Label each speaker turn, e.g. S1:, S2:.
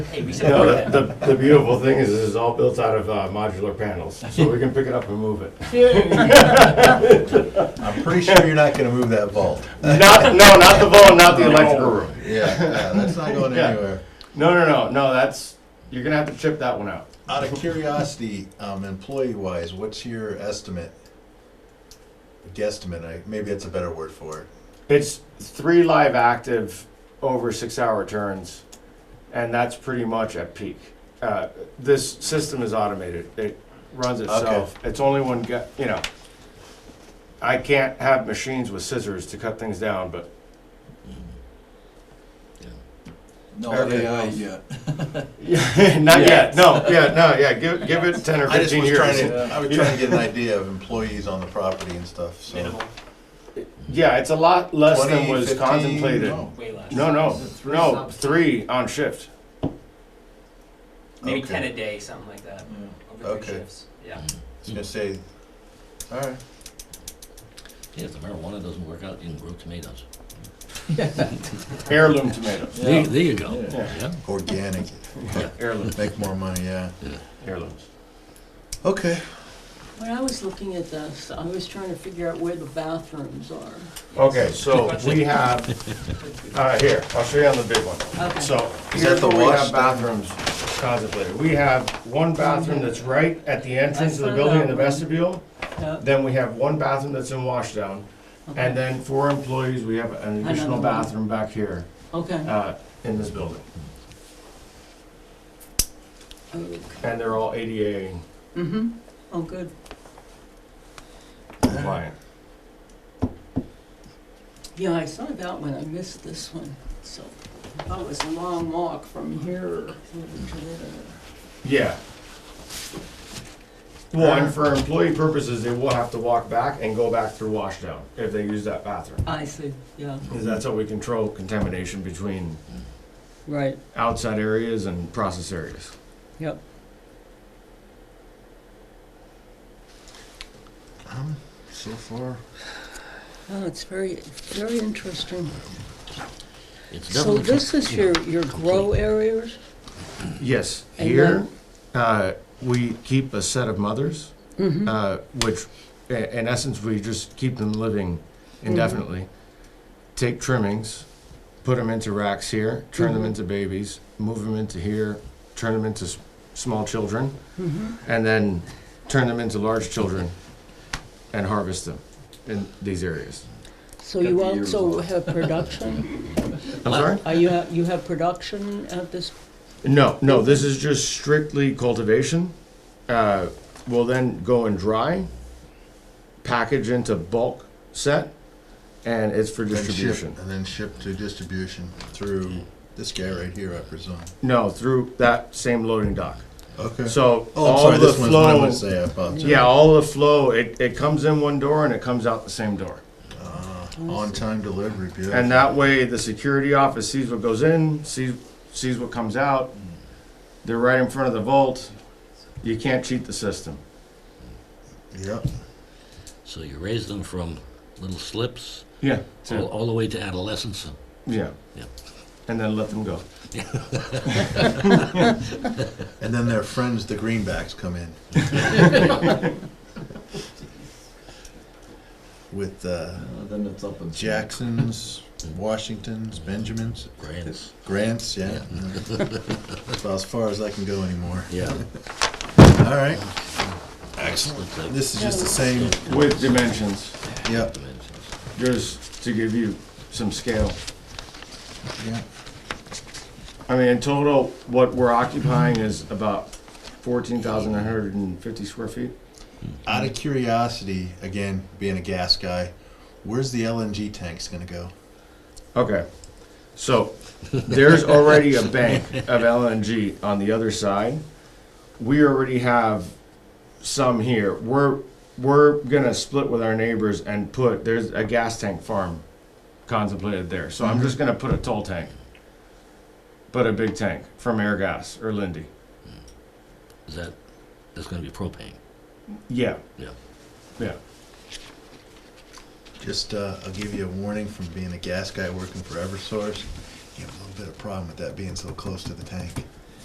S1: Hey, we said
S2: No, the, the- the beautiful thing is, this is all built out of uh, modular panels, so we can pick it up and move it.
S3: I'm pretty sure you're not gonna move that vault.
S2: Not, no, not the vault, not the electrical room.
S3: Yeah, yeah, that's not going
S2: Yeah.
S3: anywhere.
S2: No, no, no, no, that's, you're gonna have to chip that one out.
S3: Out of curiosity, um, employee-wise, what's your estimate? Guesstimate, I, maybe that's a better word for it.
S2: It's three live active over six hour turns, and that's pretty much at peak. Uh, this system is automated, it runs itself. It's only one guy, you know. I can't have machines with scissors to cut things down, but
S4: No
S2: Okay.
S4: AI yet.
S2: Yeah, not yet. No, yeah, no, yeah. Give, give it 10 or
S3: I just
S2: 15
S3: was
S2: years.
S3: trying to, I was trying to get an idea of employees on the property and stuff, so.
S1: minimal,
S2: Yeah, it's a lot less
S3: 20,
S2: than was
S3: 15?
S2: contemplated.
S3: No.
S1: way less.
S2: No, no,
S4: Is it three
S2: no,
S4: stops?
S2: three on shift.
S1: Maybe ten
S3: Okay.
S1: a day, something like that,
S4: Yeah.
S1: over
S3: Okay.
S1: three shifts, yeah.
S3: I was gonna say, all right.
S5: Yeah, if the marijuana doesn't work out, you can grow tomatoes.
S2: Heirloom tomatoes.
S5: There, there you go.
S4: Yeah.
S5: Yeah.
S3: Organic,
S2: Heirloom.
S3: make more money, yeah.
S2: Heirlooms.
S3: Okay.
S6: When I was looking at this, I was trying to figure out where the bathrooms are.
S2: Okay, so we have, uh, here, I'll show you on the big one.
S6: Okay.
S2: So
S3: Is
S2: here's
S3: that the
S2: where we have
S3: wash bathroom?
S2: bathrooms contemplated. We have one bathroom that's right at the entrance of the
S6: saw
S2: building
S6: that
S2: in the
S6: one.
S2: vestibule.
S6: Yeah.
S2: Then we have one bathroom that's in washdown. And then for employees, we have an additional
S6: one.
S2: bathroom back here.
S6: Okay.
S2: uh, in this building, and they're all ADA
S6: Mm-hmm. Oh, good.
S2: compliant.
S6: Yeah, I saw that one. I missed this one. So that was a long walk from here to there.
S2: Yeah. Well, and for employee purposes, they will have to walk back and go back through washdown if they use that bathroom.
S6: I see. Yeah.
S2: Because that's how we control contamination between
S6: Right.
S2: outside areas and process areas.
S6: Yep.
S3: Um, so far.
S6: Oh, it's very, very interesting.
S5: It's
S6: So
S5: definitely
S6: this is your, your grow areas?
S2: Yes,
S6: And
S2: here, uh, we keep a set of mothers,
S6: Mm-hmm.
S2: uh, which, i- in essence, we just keep them living
S6: Mm-hmm.
S2: indefinitely. Take trimmings, put them into racks here, turn them
S6: Mhm.
S2: into babies, move them into here, turn them into s- small children,
S6: Mm-hmm.
S2: and then turn them into large children and harvest them in these areas.
S6: So
S4: Got
S6: you
S4: the ears
S6: also
S4: on.
S6: have production?
S2: I'm sorry?
S6: Are you, ha- you have production at this?
S2: No, no, this is just strictly cultivation. Uh, we'll then go and dry, package into bulk set, and it's for distribution.
S3: And then ship to distribution through this guy right here, I presume.
S2: No, through that same loading dock.
S3: Okay.
S2: So
S3: Oh, I'm
S2: all
S3: sorry,
S2: the
S3: this one's what I uh,
S2: flow,
S3: would say, I apologize.
S2: yeah, all the flow, it, it comes in one door and it comes out the same door.
S3: Ah, On-time delivery, beautiful.
S2: And that way, the security office sees what goes in, sees, sees what comes
S3: Mm.
S2: out. They're right in front of the vault. You can't cheat the system.
S3: Yep,
S5: So you raise them from little slips
S2: Yeah.
S5: all, all the way to adolescence.
S2: Yeah.
S5: Yeah.
S2: And then let them go.
S3: and then their friends, the greenbacks, come in. With, uh,
S4: Uh, Then it's up and.
S3: Jacksons, Washingtons, Benjamins,
S5: Grants.
S3: Grants, yeah. That's about as far as I can go anymore.
S5: Yeah.
S3: All right,
S5: Excellent.
S3: this is just the same,
S2: With dimensions,
S3: yep,
S2: just to give you some scale.
S3: yeah.
S2: I mean, in total, what we're occupying is about fourteen thousand nine hundred and fifty square feet.
S3: Out of curiosity, again, being a gas guy, where's the LNG tanks gonna go?
S2: Okay, so there's already a bank of LNG on the other side. We already have some here. We're, we're gonna split with our neighbors and put, there's a gas tank farm contemplated there. So I'm just gonna put a toll tank. But a big tank from Airgas or Lindy.
S5: Is that, that's gonna be propane.
S2: Yeah,
S5: Yeah.
S2: yeah.
S3: Just, uh, I'll give you a warning from being a gas guy working for Eversource. You have a little bit of problem with that being so close to the tank.